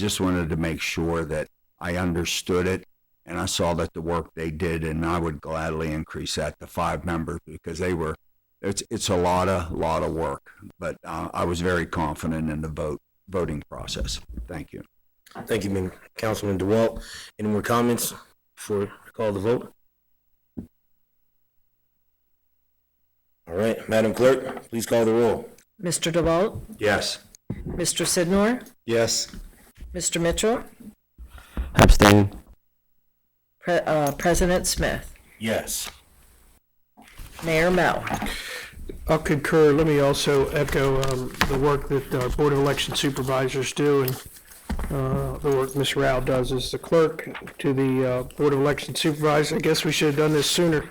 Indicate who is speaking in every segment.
Speaker 1: just wanted to make sure that I understood it and I saw that the work they did and I would gladly increase that to five members because they were it's it's a lot of lot of work but uh, I was very confident in the vote voting process thank you
Speaker 2: Thank you, Min- Councilman DeWalt. Any more comments before I call the vote? All right, Madam Clerk, please call the roll.
Speaker 3: Mr. DeWalt,
Speaker 1: yes
Speaker 3: Mr. Sidnor,
Speaker 2: Yes.
Speaker 3: Mr. Mitchell,
Speaker 4: Abstain.
Speaker 3: Pre- uh, President Smith,
Speaker 2: Yes.
Speaker 3: Mayor Mel.
Speaker 5: I'll concur. Let me also echo um, the work that our Board of Election Supervisors do and uh, the work Ms. Rao does as the clerk to the uh, Board of Election Supervisors. I guess we should have done this sooner,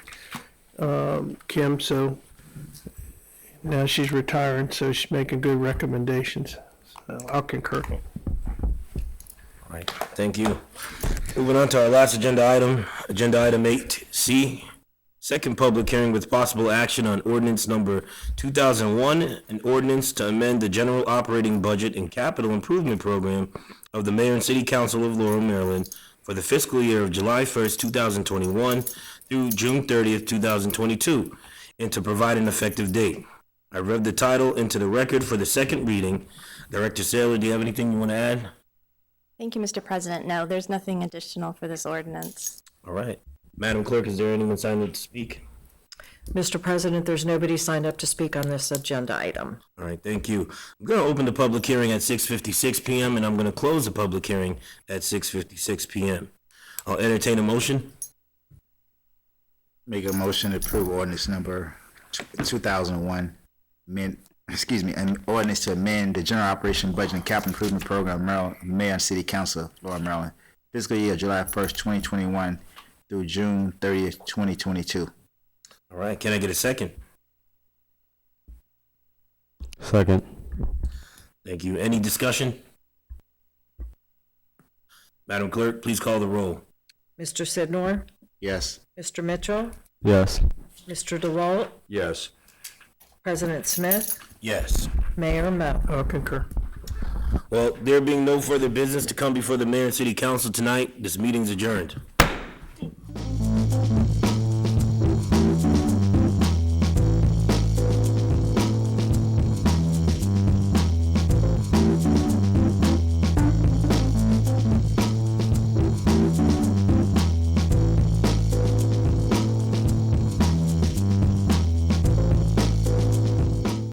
Speaker 5: um, Kim, so now she's retiring, so she's making good recommendations. So I'll concur.
Speaker 2: All right, thank you. Moving on to our last agenda item, agenda item eight C. Second public hearing with possible action on ordinance number two thousand one, an ordinance to amend the general operating budget and capital improvement program of the mayor and city council of Laurel, Maryland for the fiscal year of July first, two thousand twenty-one through June thirtieth, two thousand twenty-two, and to provide an effective date. I read the title into the record for the second reading. Director Saylor, do you have anything you want to add?
Speaker 6: Thank you, Mr. President. No, there's nothing additional for this ordinance.
Speaker 2: All right. Madam Clerk, is there anyone signed up to speak?
Speaker 3: Mr. President, there's nobody signed up to speak on this agenda item.
Speaker 2: All right, thank you. I'm going to open the public hearing at 6:56 PM and I'm going to close the public hearing at 6:56 PM. I'll entertain a motion.
Speaker 7: Make a motion to approve ordinance number two thousand one, men, excuse me, an ordinance to amend the general operation budget and capital improvement program, Maryland, Mayor and City Council, Laura, Maryland, fiscal year July first, twenty twenty-one through June thirtieth, twenty twenty-two.
Speaker 2: All right, can I get a second?
Speaker 4: Second.
Speaker 2: Thank you. Any discussion? Madam Clerk, please call the roll.
Speaker 3: Mr. Sidnor,
Speaker 7: Yes.
Speaker 3: Mr. Mitchell,
Speaker 4: Yes.
Speaker 3: Mr. DeWalt,
Speaker 1: yes
Speaker 3: President Smith,
Speaker 2: Yes.
Speaker 3: Mayor Mel.
Speaker 5: I'll concur.
Speaker 2: Well, there being no further business to come before the mayor and city council tonight, this meeting's adjourned.